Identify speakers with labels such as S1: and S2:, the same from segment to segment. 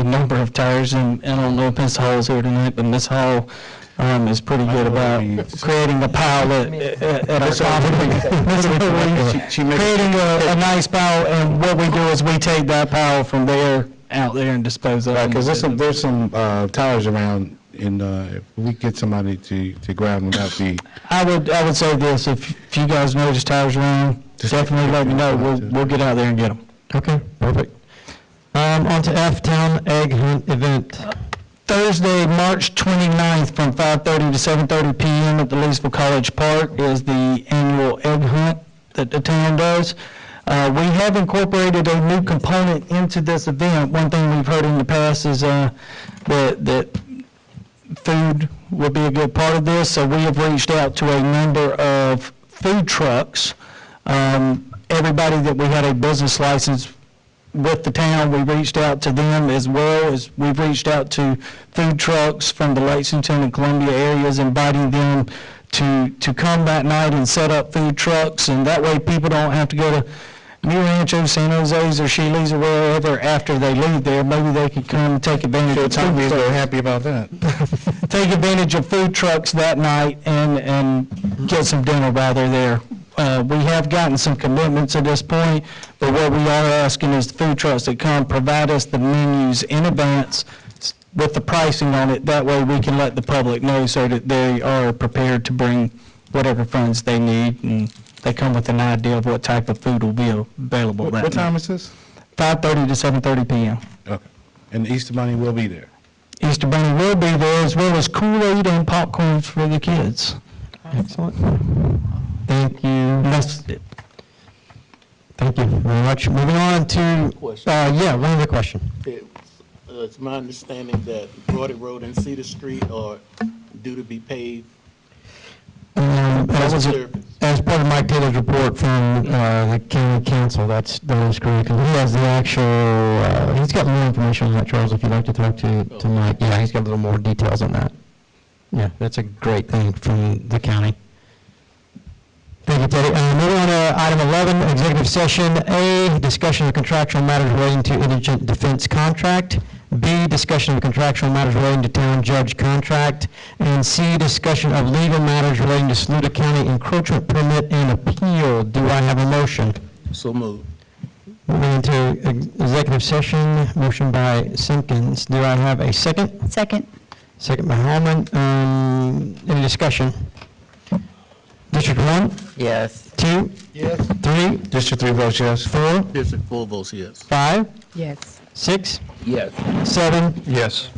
S1: a number of tires, and and I don't know if Ms. Hall's here tonight, but Ms. Hall um, is pretty good about creating a pile at- at at our conference. Ms. Hall,
S2: She- she makes-
S1: Creating a a nice pile, and what we do is we take that pile from there out there and dispose of it.
S2: Because there's some, there's some uh, tires around, and uh, if we get somebody to, to grab them, that'd be,
S1: I would, I would say this, if if you guys notice tires around, definitely let me know, we'll, we'll get out there and get them.
S3: Okay, perfect. Um, on to F Town Egg Hunt Event.
S1: Thursday, March 29th, from 5:30 to 7:30 PM at the Leesville College Park is the annual egg hunt that the town does. Uh, We have incorporated a new component into this event. One thing we've heard in the past is uh, that that food would be a good part of this, so we have reached out to a number of food trucks. Um, Everybody that we had a business license with the town, we reached out to them as well as we've reached out to food trucks from the Lexington and Columbia areas, inviting them to, to come that night and set up food trucks, and that way people don't have to go to New Rancho, San Jose's, or Sheely's, or wherever after they leave there. Maybe they could come and take advantage of the time.
S2: Tommy's very happy about that.
S1: take advantage of food trucks that night and, and get some dinner while they're there. Uh, we have gotten some commitments at this point, but what we are asking is the food trucks that come provide us the menus in advance s- with the pricing on it. That way we can let the public know so that they are prepared to bring whatever funds they need and they come with an idea of what type of food will be available
S2: What
S1: that
S2: time
S1: night.
S2: is this?
S1: 5:30 to 7:30 PM.
S2: Okay. And the Easter Bunny will be there.
S1: Easter Bunny will be there as well as Kool-Aid and popcorns for the kids.
S3: Excellent. Thank you,
S1: And that's it.
S3: thank you very much. Moving on to, uh,
S4: Question.
S3: yeah, one other question.
S4: It's uh, it's my understanding that Broadway Road and Cedar Street are due to be paved.
S3: Um, That was, a-
S4: Service.
S3: as part of Mike Taylor's report from uh, the county council, that's, that is correct, 'cause he has the actual, uh, he's got more information on that, Charles, if you'd like to talk to, to Mike, yeah, he's got a little more details on that. Yeah, that's a great thing from the county. Thank you, Teddy. Uh, Moving on to item 11, executive session. A, discussion of contractual matters relating to indigent defense contract. B, discussion of contractual matters relating to town judge contract. And C, discussion of legal matters relating to Saluda County encroachment permit and appeal. Do I have a motion?
S4: So moved.
S3: Moving into ex- executive session, motion by Simpkins. Do I have a second?
S5: Second.
S3: Second by Holman. Um, Any discussion? District one,
S5: Yes.
S3: two,
S4: Yes.
S3: three,
S2: District three votes yes.
S3: four,
S4: District four votes yes.
S3: five,
S5: Yes.
S3: six,
S4: Yes.
S3: seven,
S2: Yes.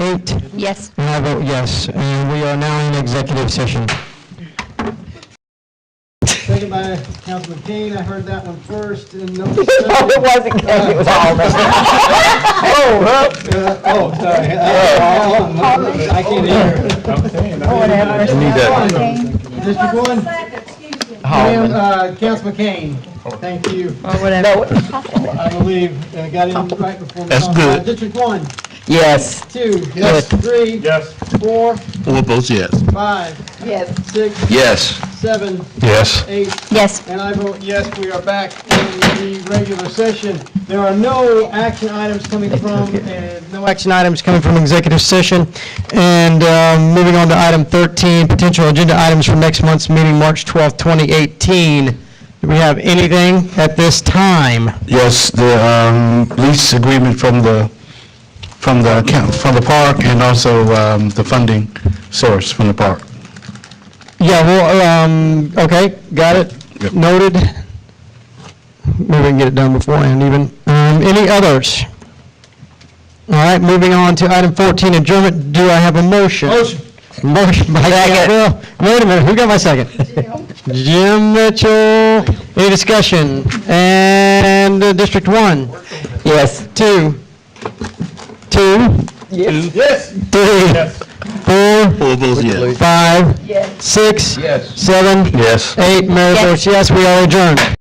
S3: eight, and
S5: Yes.
S3: I vote yes. And we are now in executive session.
S6: Second by Councilman Kane, I heard that one first, and no discussion.
S7: Oh, It wasn't Ken, it was Alden.
S6: Oh, sorry. Uh, I can't hear.
S7: Whatever.
S6: District one? Ma'am, uh, Councilman Kane, thank you,
S7: No,
S6: I believe, uh, got in right before. That's good. District one,
S7: Yes.
S6: two, three. Yes. Four,
S4: Four votes yes.
S6: five,
S7: Yes.
S6: six,
S4: Yes.
S6: seven,
S2: Yes.
S6: eight,
S5: Yes.
S6: And I vote yes, we are back in the regular session. There are no action items coming from, uh, and no
S3: No action items coming from executive session. And um, moving on to item 13, potential agenda items for next month's meeting, March 12th, 2018. Do we have anything at this time?
S2: Yes, the um, lease agreement from the, from the, account- from the park and also um, the funding source from the park.
S3: Yeah, well, um, okay, got it,
S2: Yep.
S3: noted. Maybe we can get it done beforehand even. Um, any others? All right, moving on to item fourteen, adjournment, do I have a motion? Motion. Motion by Campbell, wait a minute, who got my second? Jim Mitchell, any discussion? And uh, District One? Yes. Two? Two? Yes. Three? Four?
S4: Four votes yes.
S3: Five?
S7: Yes.
S3: Six? Yes. Seven?
S2: Yes.
S3: Eight, Mayor votes yes, we are adjourned.